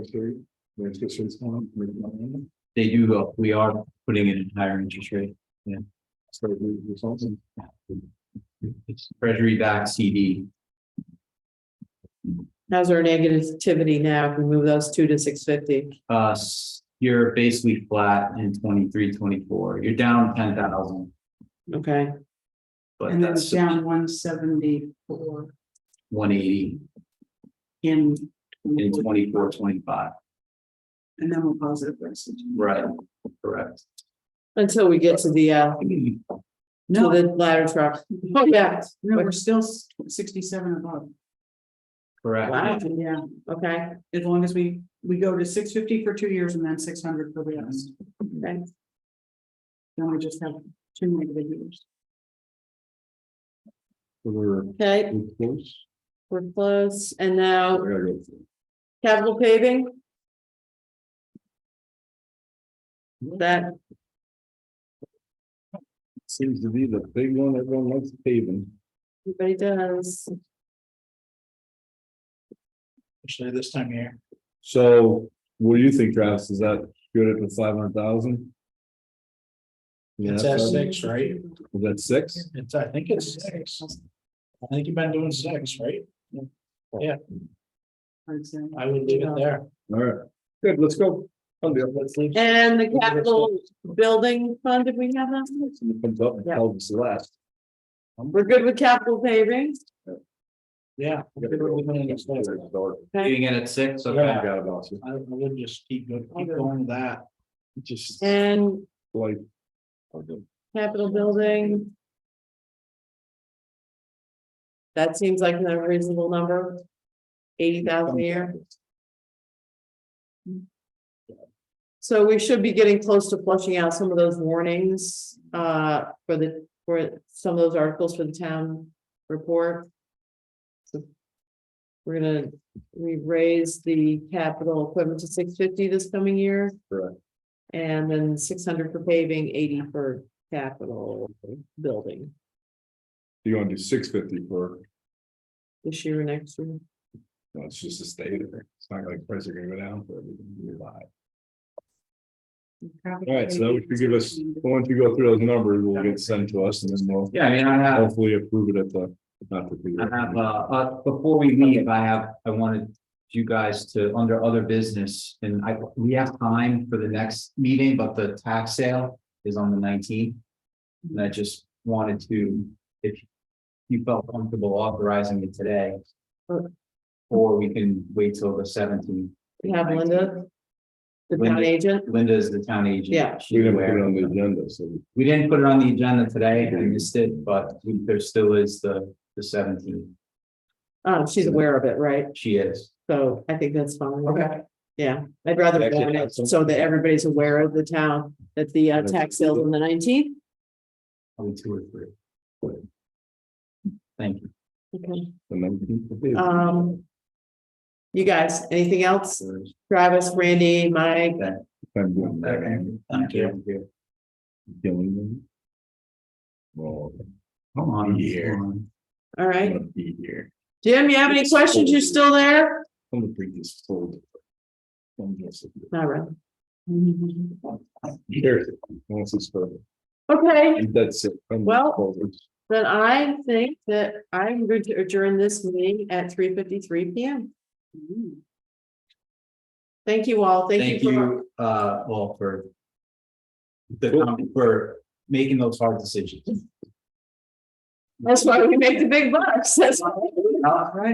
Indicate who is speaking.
Speaker 1: They do, go- we are putting in a higher interest rate, yeah. It's treasury backed CD,
Speaker 2: How's our negativity now? If we move those two to six fifty.
Speaker 1: uh, s- you're basically flat in 23, 24. twenty-four, you're down ten thousand,
Speaker 2: Okay,
Speaker 1: but
Speaker 3: And then
Speaker 1: that's
Speaker 3: down one seventy-four
Speaker 1: one eighty
Speaker 3: in.
Speaker 1: in 24, 25.
Speaker 3: And then we'll positive versus.
Speaker 1: right, correct.
Speaker 2: until we get to the uh, to
Speaker 3: No,
Speaker 2: the ladder truck. Oh, yeah,
Speaker 3: no, we're still s- sixty-seven above.
Speaker 2: Wow.
Speaker 1: Correct,
Speaker 3: Yeah,
Speaker 2: okay,
Speaker 3: as long as we, we go to six fifty for two years and then six hundred for the rest.
Speaker 2: okay.
Speaker 3: Then we just have two negative years.
Speaker 4: We're
Speaker 2: Okay,
Speaker 4: we're close.
Speaker 2: we're close. And
Speaker 4: I
Speaker 2: now
Speaker 4: gotta go through.
Speaker 2: capital paving? That,
Speaker 4: Seems to be the big one everyone likes paving.
Speaker 2: everybody does.
Speaker 1: especially this time of year.
Speaker 4: So what do you think, Travis? Is that good at the five hundred thousand? Yeah,
Speaker 5: It's at
Speaker 4: that's
Speaker 5: six, right?
Speaker 4: six?
Speaker 5: It's, I think it's six. I think you've been doing six, right?
Speaker 3: I'd say.
Speaker 5: I would leave it there.
Speaker 4: All right, good, let's go. I'll do it.
Speaker 5: Let's leave.
Speaker 2: And the capital building fund, did we have that?
Speaker 4: Somebody comes up and
Speaker 2: Yeah.
Speaker 4: tells us the last.
Speaker 2: We're good with capital paving?
Speaker 5: Yeah. I think we're leaving it at six.
Speaker 2: Okay.
Speaker 1: Getting in at six,
Speaker 5: Yeah.
Speaker 4: I
Speaker 1: okay.
Speaker 4: got it, boss.
Speaker 5: I I would just keep go- keep going with that.
Speaker 4: Just
Speaker 2: And
Speaker 4: like. oh,
Speaker 2: Capitol Building. That seems like a reasonable number. Eighty thousand a year. So we should be getting close to flushing out some of those warnings, uh, for the, for some of those articles for the town report. So We're gonna, we raise the capital equipment to six fifty this coming year.
Speaker 4: Correct.
Speaker 2: And then six hundred for paving, eighty for capital building
Speaker 4: You wanna do six fifty for,
Speaker 2: this year, next year.
Speaker 4: no, it's just a state. It's not like prices are gonna go down for everything. You're live. All right, so that would give us, once we go through those numbers, we'll get sent to us and then we'll
Speaker 1: Yeah, I mean, I have,
Speaker 4: hopefully approve it at the. not the
Speaker 1: I have, uh,
Speaker 4: bigger-
Speaker 1: uh, before we leave, I have, I wanted you guys to, under other business, and I, we have time for the next meeting, but the tax sale is on the nineteenth. And I just wanted to, if you felt comfortable authorizing it today. Or we can wait till the seventeenth.
Speaker 2: We have Linda, the town
Speaker 1: Linda.
Speaker 2: agent.
Speaker 1: Linda is the town agent.
Speaker 2: Yeah.
Speaker 1: She's
Speaker 4: We didn't put
Speaker 1: aware.
Speaker 4: it on the agenda, so
Speaker 1: We didn't put it on the agenda today, I missed it, but we- there still is the, the seventeenth,
Speaker 2: Um, she's aware of it, right?
Speaker 1: she is.
Speaker 2: So I think that's fine.
Speaker 5: Okay.
Speaker 2: Yeah, I'd rather
Speaker 4: Actually,
Speaker 2: warn it
Speaker 4: that's-
Speaker 2: so that everybody's aware of the town, that the uh,
Speaker 4: That's-
Speaker 2: tax sales on the nineteenth.
Speaker 1: Only two or three. Thank you.
Speaker 2: Okay.
Speaker 4: the nineteenth.
Speaker 1: Oh.
Speaker 2: Um. You guys, anything else? Travis, Randy, Mike,
Speaker 4: I'm doing that.
Speaker 1: Thank you.
Speaker 4: Killing them. Well,
Speaker 1: Come on.
Speaker 4: Yeah.
Speaker 1: come on.
Speaker 2: all
Speaker 4: I'm
Speaker 2: right.
Speaker 4: gonna be here.
Speaker 2: Jim, you have any questions? You still there?
Speaker 4: I'm gonna bring this forward. I'm just-
Speaker 2: Not really.
Speaker 4: Here, once it's further.
Speaker 2: Okay.
Speaker 4: That's it. I'm
Speaker 2: Well-
Speaker 4: forward.
Speaker 2: Then I think that I'm going to adjourn this meeting at three fifty-three P M. Thank you all.
Speaker 1: Thank you, uh, all for the, com- for making those hard decisions.
Speaker 2: That's why we make the big bucks. That's why.
Speaker 3: All right.